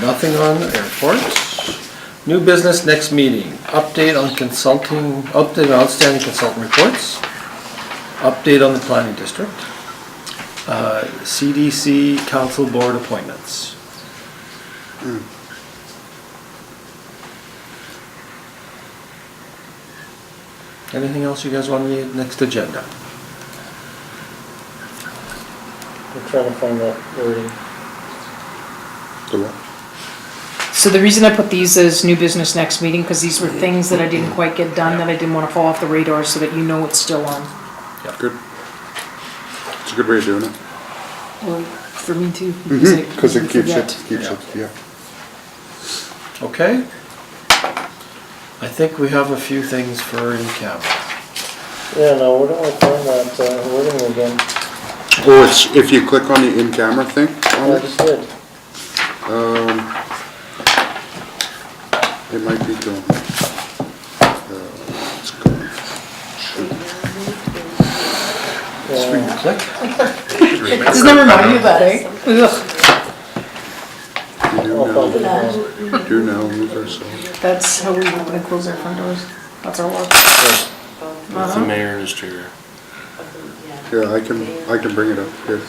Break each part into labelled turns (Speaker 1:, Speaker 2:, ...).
Speaker 1: nothing on airports. New business next meeting, update on consulting, update on outstanding consultant reports, update on the planning district, uh, CDC council board appointments. Hmm. Anything else you guys want on the next agenda?
Speaker 2: I'm trying to find that wording.
Speaker 3: So the reason I put these as new business next meeting, because these were things that I didn't quite get done, that I didn't want to fall off the radar, so that you know it's still on.
Speaker 4: Good. It's a good way of doing it.
Speaker 3: Well, for me too.
Speaker 4: Mm-hmm. Because it keeps it,
Speaker 3: forget.
Speaker 4: keeps it, yeah.
Speaker 1: Okay. I think we have a few things for in camera.
Speaker 2: Yeah, no, where do I find that uh, wording again?
Speaker 4: Oh, it's, if you click on the in-camera thing on
Speaker 2: I
Speaker 4: it,
Speaker 2: just did.
Speaker 4: um, it might be gone. Uh, It's gone.
Speaker 1: Screen to click.
Speaker 3: Does that remind you of that, eh? Ugh,
Speaker 4: You do
Speaker 2: I'll find it
Speaker 4: now,
Speaker 2: again.
Speaker 4: you do now move ourselves.
Speaker 3: That's how we we close our front doors. That's our work. Uh-huh.
Speaker 5: The mayor and his chair.
Speaker 4: Yeah, I can, I can bring it up here.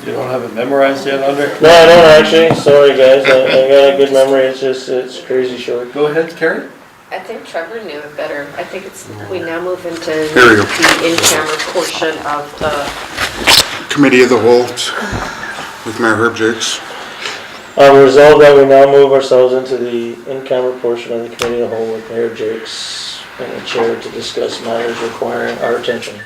Speaker 5: You don't have it memorized yet, Andre?
Speaker 2: No, I don't actually, sorry guys, I, I got a good memory, it's just, it's crazy short.
Speaker 1: Go ahead, Carrie.
Speaker 6: I think Trevor knew it better. I think it's, we now move into
Speaker 4: Here we go.
Speaker 6: the in-camera portion of the,
Speaker 4: Committee of the Whole with Mayor Herb Jakes.
Speaker 2: Um, resolved that we now move ourselves into the in-camera portion of the committee of the whole with Mayor Jakes and the chair to discuss matters requiring our attention.